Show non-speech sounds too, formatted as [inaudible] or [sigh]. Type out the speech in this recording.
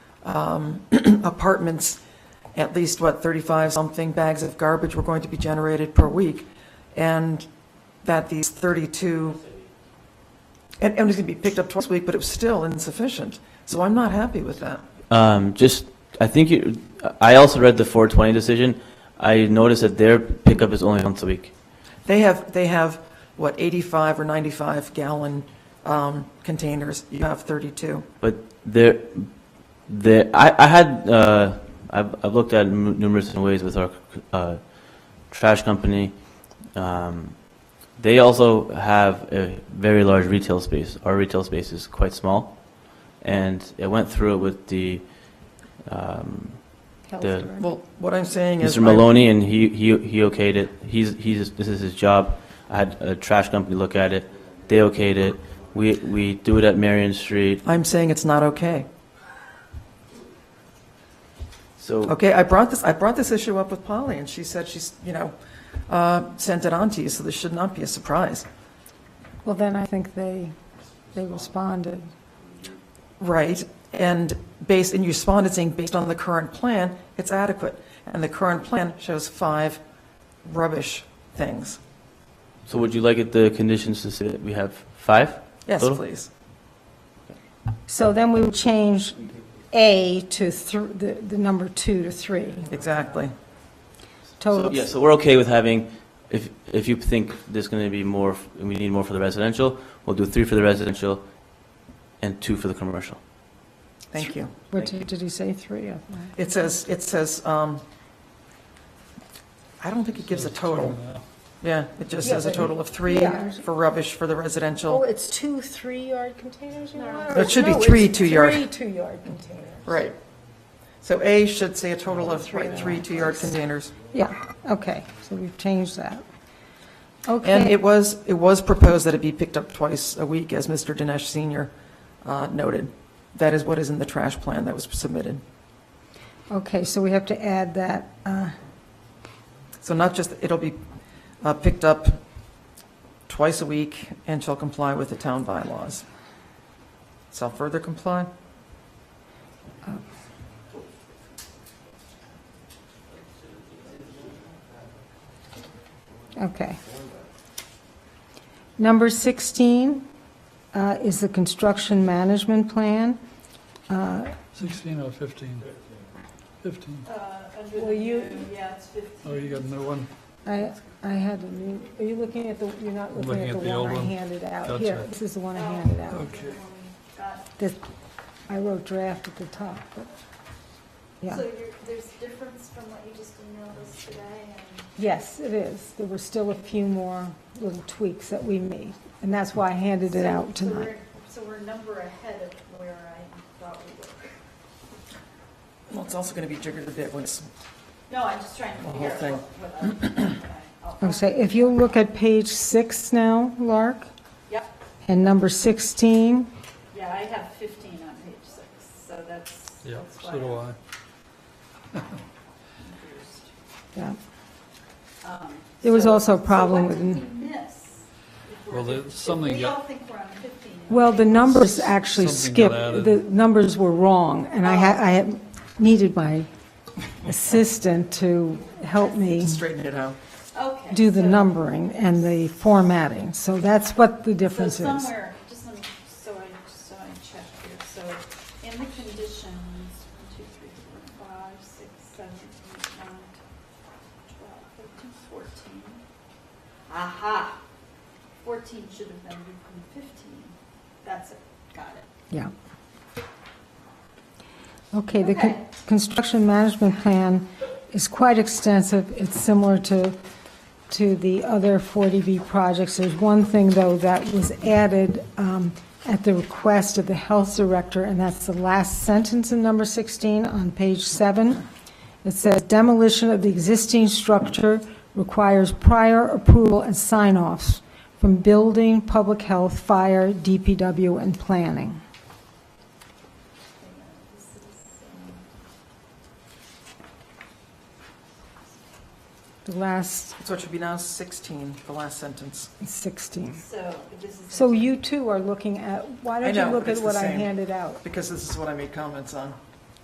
um, [clears throat] apartments, at least, what, 35-something bags of garbage were going to be generated per week, and that these 32, and and it was going to be picked up twice a week, but it was still insufficient. So I'm not happy with that. Um, just, I think you, I also read the 420 decision. I noticed that their pickup is only once a week. They have, they have, what, 85 or 95 gallon um, containers, you have 32. But there, there, I, I had, uh, I've, I've looked at m- numerous different ways with our, uh, trash company. Um, they also have a very large retail space. Our retail space is quite small. And it went through it with the, um, the, Well, what I'm saying is. Mr. Maloney, and he, he, he okayed it. He's, he's, this is his job. I had a trash company look at it. They okayed it. We, we do it at Marion Street. I'm saying it's not okay. So, Okay, I brought this, I brought this issue up with Polly, and she said she's, you know, uh, sent it on to you, so this should not be a surprise. Well, then I think they, they responded. Right, and based, and you responded saying, based on the current plan, it's adequate. And the current plan shows five rubbish things. so would you like it, the conditions to say that we have five? Yes, Total? please. So then we would change A to thr- the, the number two to three. Exactly. So, Total, yeah, so we're okay with having, if, if you think there's going to be more, f- we need more for the residential, we'll do three for the residential and two for the commercial. Thank you. what did did he say, three? I thought. It says, it says, um, I don't think it gives a total. Yeah, it just says a total of three Yeah. for rubbish for the Oh, residential. it's two three-yard containers you want? No, it should be No, it's three two-yard. Three two-yard containers. Right. So A should say a total of, right, three two-yard containers. Yeah, okay, so we've changed that. And Okay, it was, it was proposed that it be picked up twice a week, as Mr. Dinesh Senior uh, noted. That is what is in the trash plan that was submitted. okay, so we have to add that, uh, So not just, it'll be uh, picked up twice a week and shall comply with the town bylaws. Shall further comply? Okay. Number 16 uh, is the construction management plan. Uh, 16 or 15? 15. Uh, Will you, Oh, you got a new one? I, I had, a new- are you looking at the, you're not looking at the old one I one. handed out? Gotcha. Here, this is the one Oh, I handed out. Okay. This- I wrote draft at the top, but, yeah. So you're, there's difference from what you just emailed us today and. Yes, it is. There were still a few more little tweaks that we made, and that's why I handed it out So- so tonight. we're- So we're a number ahead of where I thought we were. Well, it's also going to be jiggered a bit when it's, No, I'm just trying The to whole figure out thing. what, what I- what I. I'll Oh, say, if you look at page six now, Lark, Yep, and number 16, yeah, I have fifteen on page six, so that's. Yeah, that's why so do I'm I. confused. yeah. Um, There was so- also a so problem what with- did we miss? If we're Well, there's fif- if something We got- all think we're on fifteen. and Well, the we're- numbers actually Something skipped, got added. the numbers were wrong, and I had, I had needed my assistant to help me straighten it out. Okay. do the so- numbering and the formatting, so that's what the So difference is. somewhere, just let me, so I, so I check here, so in the conditions, one, two, three, four, five, six, seven, eight, nine, ten, twelve, thirteen, fourteen. Aha, fourteen should have been written fifteen, that's it, got it. Yeah. Okay, the Okay. con- construction management plan is quite extensive. It's similar to, to the other 40B projects. There's one thing, though, that was added um, at the request of the health director, and that's the last sentence in number 16 on page 7. It says demolition of the existing structure requires prior approval and sign-offs from building, public health, fire, DPW, and planning. This is, um, The last So it should be now 16, the last sentence. 16. So this is. So you too are looking at, why I don't you know, look it's at the what I same. handed out? Because this is what I made comments on.